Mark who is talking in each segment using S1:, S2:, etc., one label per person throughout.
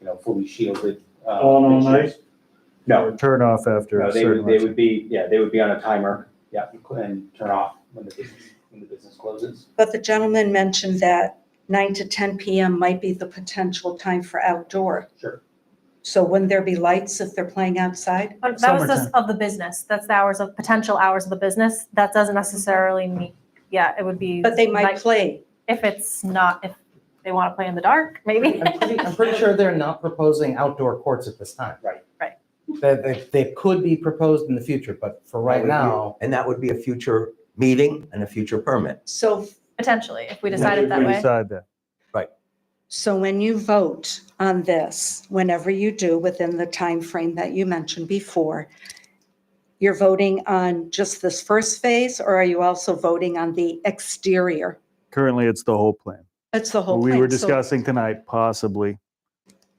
S1: you know, fully shielded. uh,
S2: All in all
S1: fixtures. No,
S3: Or Turn off after
S1: no,
S3: a
S1: they
S3: certain.
S1: would, they
S3: amount
S1: would be, yeah, they would be on a timer, yeah, and turn off when the business, when the business closes.
S4: But the gentleman mentioned that nine to ten PM might be the potential time for outdoor.
S1: Sure.
S4: So wouldn't there be lights if they're playing outside?
S5: Uh, That was
S3: Summertime.
S5: just of the business. That's the hours of, potential hours of the business. That doesn't necessarily mean, yeah, it would be.
S4: Mm-hmm. But they might
S5: like,
S4: play.
S5: If it's not, if they want to play in the dark, maybe.
S6: I'm pretty, I'm pretty sure they're not proposing outdoor courts at this time.
S1: Right.
S5: Right.
S6: That, that, they could be proposed in the future, but for right now,
S7: And that would be a future meeting and a future permit.
S4: So,
S5: Potentially, if we
S2: Yeah,
S5: decide it
S2: if
S5: that
S2: we
S5: way.
S3: Decide that.
S4: so when you vote on this, whenever you do within the time frame that you mentioned before, you're voting on just this first phase or are you also voting on the exterior?
S3: Currently, it's the whole plan.
S4: It's the whole
S3: What
S4: plan.
S3: we were
S4: So-
S3: discussing tonight, possibly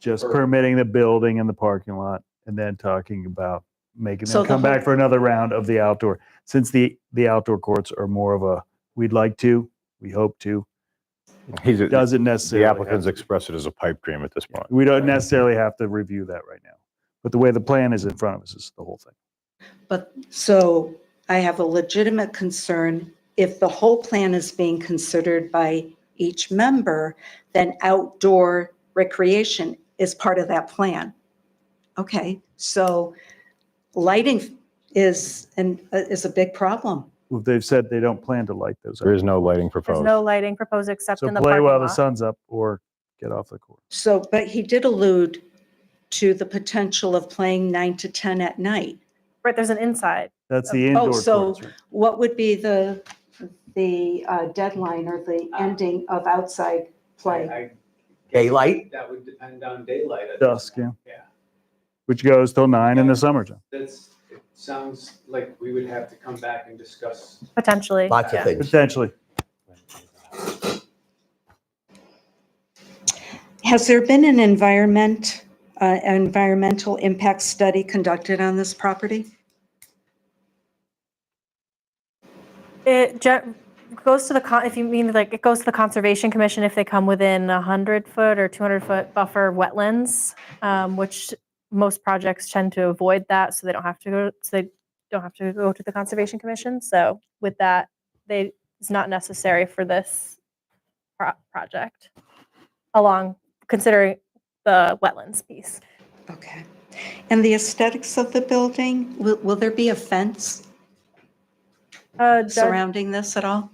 S3: just
S1: Or-
S3: permitting the building and the parking lot and then talking about making
S4: So
S3: them
S4: the
S3: come back
S4: whole-
S3: for another round of the outdoor. Since the, the outdoor courts are more of a, we'd like to, we hope to,
S8: He's, the
S3: doesn't necessarily. have
S8: applicant's
S3: to.
S8: expressed it as a pipe dream at this point.
S3: We don't necessarily have to review that right now. But the way the plan is in front of us is the whole thing.
S4: But, so I have a legitimate concern, if the whole plan is being considered by each member, then outdoor recreation is part of that plan. Okay, so lighting is, and is a big problem.
S3: Well, They've said they don't plan to light those.
S8: There
S3: up.
S8: is no lighting
S5: There's
S8: proposed.
S5: no lighting proposed except
S3: So
S5: in the
S3: play
S5: parking
S3: while the
S5: lot.
S3: sun's up or get off the court.
S4: So, but he did allude to the potential of playing nine to 10 at night.
S5: Right, there's an inside.
S3: That's the
S4: Oh,
S3: indoor
S4: so-
S3: courts. right?
S4: What would be the, the uh, deadline or the ending of outside play?
S7: Daylight,
S1: That would depend on daylight.
S3: Dusk, yeah.
S1: Yeah.
S3: Which goes till nine in the summertime.
S1: That's, it sounds like we would have to come back and discuss.
S5: Potentially.
S7: lots
S5: yeah.
S7: of things.
S3: Potentially.
S4: Has there been an environment, uh, environmental impact study conducted on this property?
S5: It gen- goes to the, con- if you mean like, it goes to the Conservation Commission if they come within a hundred foot or two hundred foot buffer wetlands, um, which most projects tend to avoid that, so they don't have to go, so they don't have to go to the Conservation Commission. So with that, they, it's not necessary for this pro- project along, considering the wetlands piece.
S4: Okay. And the aesthetics of the building, will, will there be a fence
S5: Uh, Doug,
S4: surrounding this at all?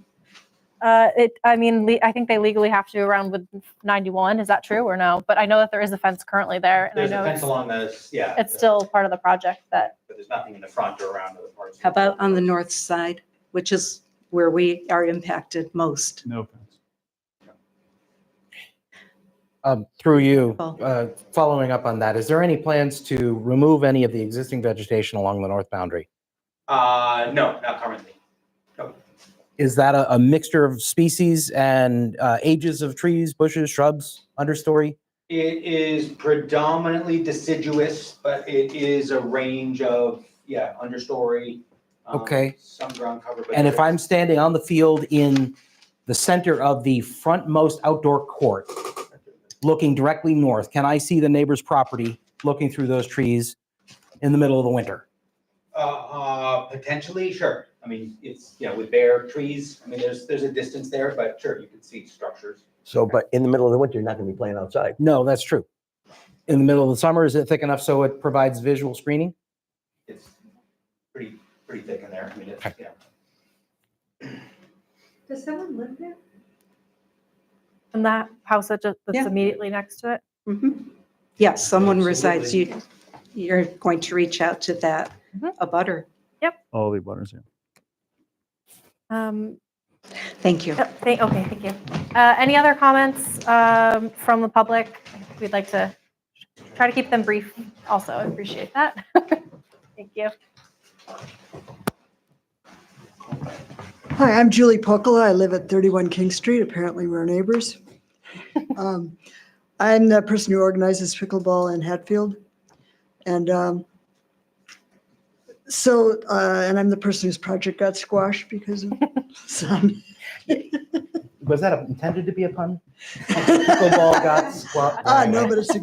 S5: Uh, it, I mean, le- I think they legally have to around with 91. Is that true or no? But I know that there is a fence currently there, and I
S1: There's a
S5: know
S1: fence
S5: it's,
S1: along this, yeah.
S5: it's still part of the project that
S1: But there's nothing in the front or around other parts.
S4: How about on the north side, which is where we are impacted most?
S3: No offense.
S6: um, through you,
S4: Oh.
S6: uh, following up on that, is there any plans to remove any of the existing vegetation along the north boundary?
S1: Uh, no, not currently.
S6: Is that a, a mixture of species and, uh, ages of trees, bushes, shrubs, understory?
S1: It is predominantly deciduous, but it is a range of, yeah, understory. um,
S6: Okay.
S1: Some ground cover. but
S6: And if
S1: there's-
S6: I'm standing on the field in the center of the frontmost outdoor court, looking directly north, can I see the neighbor's property looking through those trees in the middle of the winter?
S1: Uh, uh, potentially, sure. I mean, it's, yeah, with bare trees, I mean, there's, there's a distance there, but sure, you can see structures.
S7: So, but in the middle of the winter, you're not going to be playing outside.
S6: No, that's true. In the middle of the summer, is it thick enough so it provides visual screening?
S1: It's pretty, pretty thick in there. I mean, it's, yeah.
S9: Does someone live there?
S5: in that house that just, that's
S4: Yeah.
S5: immediately next to it.
S4: Mhm. Yes, someone resides, you, you're going to reach out to that,
S5: Mhm.
S4: a butter.
S3: All the butters, yeah.
S5: Um,
S4: Thank you.
S5: yep, thank, okay, thank you. Uh, any other comments um, from the public? We'd like to try to keep them brief. Also, I appreciate that. thank you.
S9: Hi, I'm Julie Pocola. I live at 31 King Street. Apparently, we're neighbors. Um, I'm the person who organizes pickleball in Hatfield. And um, so, uh, and I'm the person whose project got squashed because of some.
S6: Was that intended to be a pun? Pickleball got squat.
S9: Ah, no, but it's a good